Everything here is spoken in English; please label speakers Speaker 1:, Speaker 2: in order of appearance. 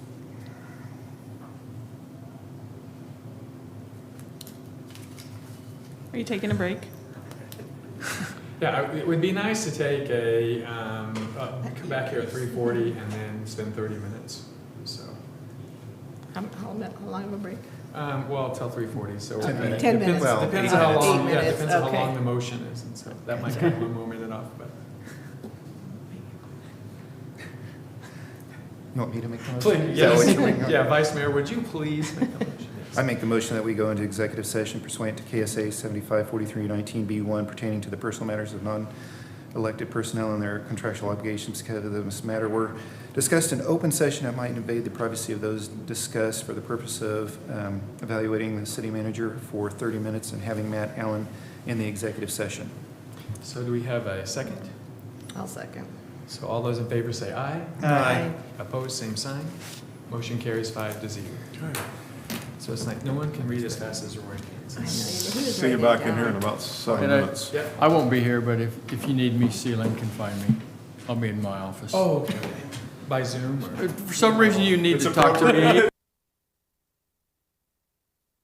Speaker 1: Are you taking a break?
Speaker 2: Yeah, I- it would be nice to take a, um, uh, come back here at three forty and then spend thirty minutes, so.
Speaker 1: How, how lo- how long of a break?
Speaker 2: Um, well, till three forty, so.
Speaker 1: Ten
Speaker 2: it
Speaker 1: minutes.
Speaker 3: Ten
Speaker 2: depends-
Speaker 3: minutes.
Speaker 2: Depends on how
Speaker 1: Eight
Speaker 2: long, yeah,
Speaker 3: minutes,
Speaker 2: depends on how
Speaker 1: okay.
Speaker 2: long the motion is, and so that might kind of move it off, but.
Speaker 3: You want me to make the motion?
Speaker 2: Please,
Speaker 3: Is that what
Speaker 2: yes,
Speaker 3: you're doing?
Speaker 2: yeah, Vice Mayor, would you please make the motion? Yes.
Speaker 3: I make the motion that we go into executive session pursuant to KSA 754319B1 pertaining to the personal matters of non-elected personnel and their contractual obligations because of this matter were discussed in open session that might invade the privacy of those discussed for the purpose of um, evaluating the city manager for 30 minutes and having Matt Allen in the executive session.
Speaker 2: So do we have a second?
Speaker 1: I'll second.
Speaker 2: So all those in favor say aye.
Speaker 1: Aye.
Speaker 2: Opposed, same sign. Motion carries five to zero. So it's like, no one can read as fast as Roy
Speaker 1: I know,
Speaker 2: can.
Speaker 1: you- he was
Speaker 4: See you
Speaker 1: writing
Speaker 4: back in
Speaker 1: down.
Speaker 4: here in about seven
Speaker 5: And I-
Speaker 4: minutes.
Speaker 2: Yep.
Speaker 5: I won't be here, but if, if you need me, Sealand can find me. I'll be in my office.
Speaker 2: Oh, okay. By Zoom or?
Speaker 5: For some reason, you need to talk to me